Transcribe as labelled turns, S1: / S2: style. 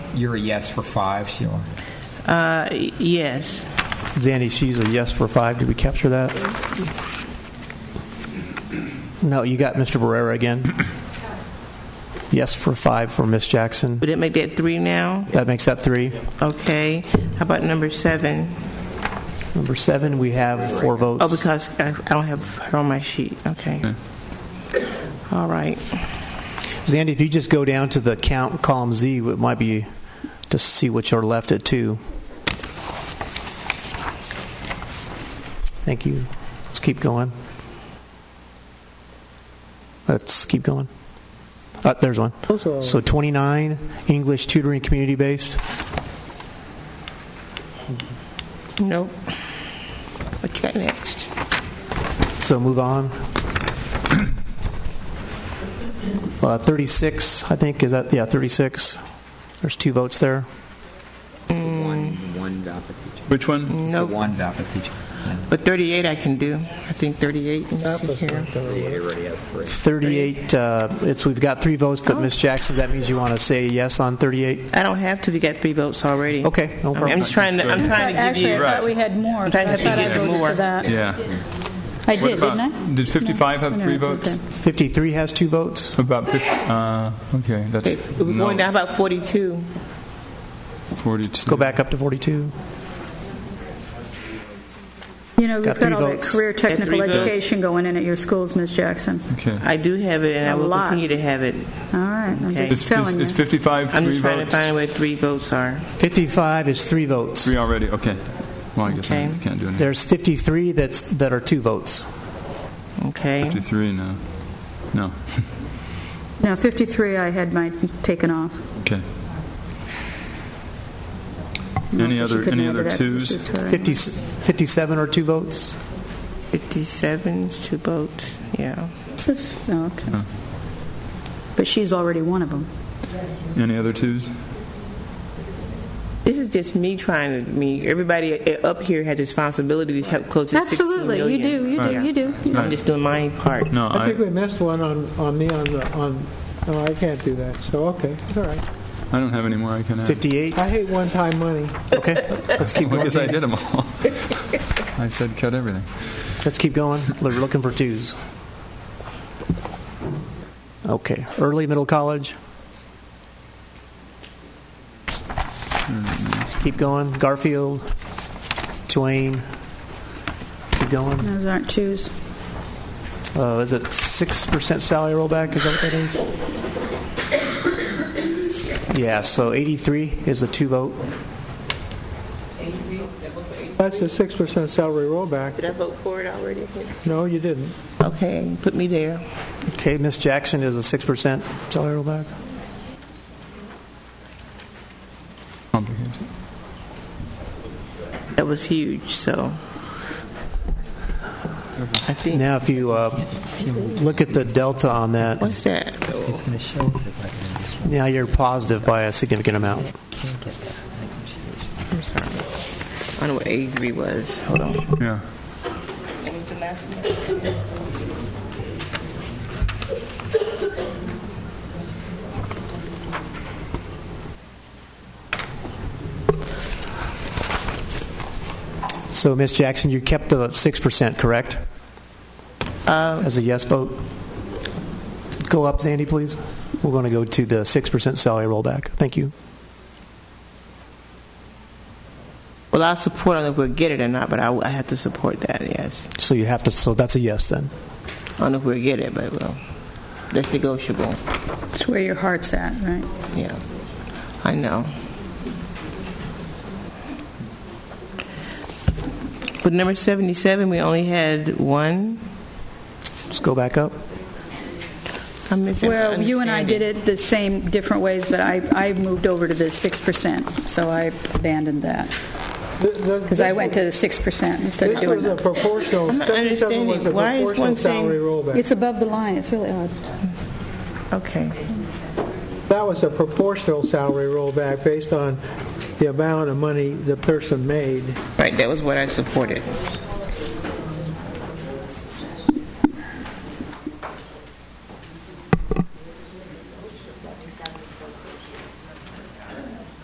S1: you're a yes for five, Sheila?
S2: Uh, y- Yes.
S3: Zandy, she's a yes for five. Did we capture that? No, you got Mr. Barrera again. Yes for five for Miss Jackson.
S2: Would it make that three now?
S3: That makes that three.
S2: Okay. How about number seven?
S3: Number seven, we have four votes.
S2: Oh, because I I don't have her on my sheet. Okay. All right.
S3: Zandy, if you just go down to the count column Z, it might be to see what you're left at two. Thank you. Let's keep going. Let's keep going. Uh, there's one. So 29, English tutoring community based.
S2: Nope. What you got next?
S3: So move on. Uh, 36, I think, is that? Yeah, 36. There's two votes there.
S1: One, one DAPA teacher.
S4: Which one?
S1: The
S2: Nope.
S1: One DAPA teacher.
S2: But 38 I can do. I think 38. Let me see here.
S1: It already has three.
S3: 38, uh, it's, we've got three votes, but Ms. Jackson, that means you want to say yes on 38?
S2: I don't have to. We got three votes already.
S3: Okay, no
S2: I mean,
S3: problem.
S2: I'm just trying to, I'm trying to give
S5: Actually, I
S2: you,
S5: thought we had more.
S2: I'm trying
S5: so I
S2: to give
S5: thought
S2: you
S5: I voted
S2: more.
S5: for that.
S4: Yeah.
S5: I did,
S4: What about-
S5: didn't I?
S4: did 55
S5: No?
S4: have
S5: No,
S4: three
S5: it's
S4: votes?
S5: okay.
S3: 53 has two votes?
S4: About 50, uh, okay, that's
S2: we're going
S4: no,
S2: down about 42.
S4: 42.
S3: Go back up to 42.
S5: You know,
S3: It's
S5: we've
S3: got
S5: got
S3: three
S5: all that
S3: votes.
S5: career technical
S2: Got three votes.
S5: education going in at your schools, Ms. Jackson.
S4: Okay.
S2: I do have it, and I
S5: A
S2: will
S5: lot.
S2: continue to have it.
S5: All right, I'm
S2: Okay.
S4: Is,
S5: just
S4: is,
S5: telling
S4: is
S5: you.
S4: 55
S2: I'm
S4: three
S2: just trying to
S4: votes?
S2: find out where three votes are.
S3: 55 is three votes.
S4: Three already, okay. Well, I guess I
S2: Okay.
S4: can't do anything.
S3: There's 53 that's, that are two votes.
S2: Okay.
S4: 53, no. No,
S5: No, 53 I had my taken off.
S4: okay.
S5: No,
S4: Any
S5: so she
S4: other-
S5: couldn't
S4: any
S5: add to
S4: other
S5: that,
S4: twos?
S5: she's right.
S3: 50, 57 are two votes?
S2: 57 is two votes. Yeah.
S5: Oh, okay. But she's already one of them.
S4: Any other twos?
S2: This is just me trying to. I mean, everybody i- up here has responsibility to help close to 16
S5: Absolutely, you
S2: million.
S5: do, you do,
S2: Yeah.
S5: you do.
S2: I'm just doing my part.
S4: No,
S6: I think
S4: I,
S6: we missed one on, on me on, the- on, no, I can't do that, so, okay, it's all right.
S4: I don't have any more I can add.
S3: 58?
S6: I hate one-time money.
S3: Okay, let's keep
S4: Well,
S3: going.
S4: I guess I did them all. I said cut everything.
S3: Let's keep going. We're looking for twos. Okay, early middle college. Keep going. Garfield, Twain. Keep going.
S5: Those aren't twos.
S3: Uh, is it six percent salary rollback? Is that what that is? Yeah. So eighty-three is a two vote.
S6: That's a 6% salary rollback.
S2: Did I vote for it already?
S6: No, you didn't.
S2: Okay, put me there.
S3: Okay. Miss Jackson is a six percent salary rollback.
S4: Complicated.
S2: That was huge. So I think
S3: Now, if you uh, look at the delta on that,
S2: what's that?
S1: It's going to show up as like an additional.
S3: Now you're positive by a significant amount.
S1: Can't get that. on the computer.
S2: I'm sorry. I don't know what A three was. Hold on.
S4: Yeah.
S2: What was the last one?
S3: So, Ms. Jackson, you kept the 6%, correct? As a yes vote? Go up, Zandy, please. We're going to go to the 6% salary rollback. Thank you.
S2: Well, I'll support. I don't know if we'll get it or not, but I, I have to support that. Yes.
S3: So you have to, so that's a yes then.
S2: I don't know if we'll get it, but well, that's negotiable.
S5: It's where your heart's at, right?
S2: Yeah, I know. But number 77, we only had one.
S3: Just go back up.
S2: I'm missing.
S5: Well, you and I did it the same, different ways, but I, I moved over to the 6%, so I abandoned that, because
S6: Because
S5: I went to the 6% instead of
S6: This
S5: doing
S6: was a
S5: that.
S6: proportional,
S2: I'm not
S6: 77 was a
S2: understanding. Why is one
S6: proportional
S2: saying-
S6: salary rollback.
S5: It's above the line, it's really odd.
S2: Okay.
S6: That was a proportional salary rollback based on the amount of money the person made.
S2: Right, that was what I supported.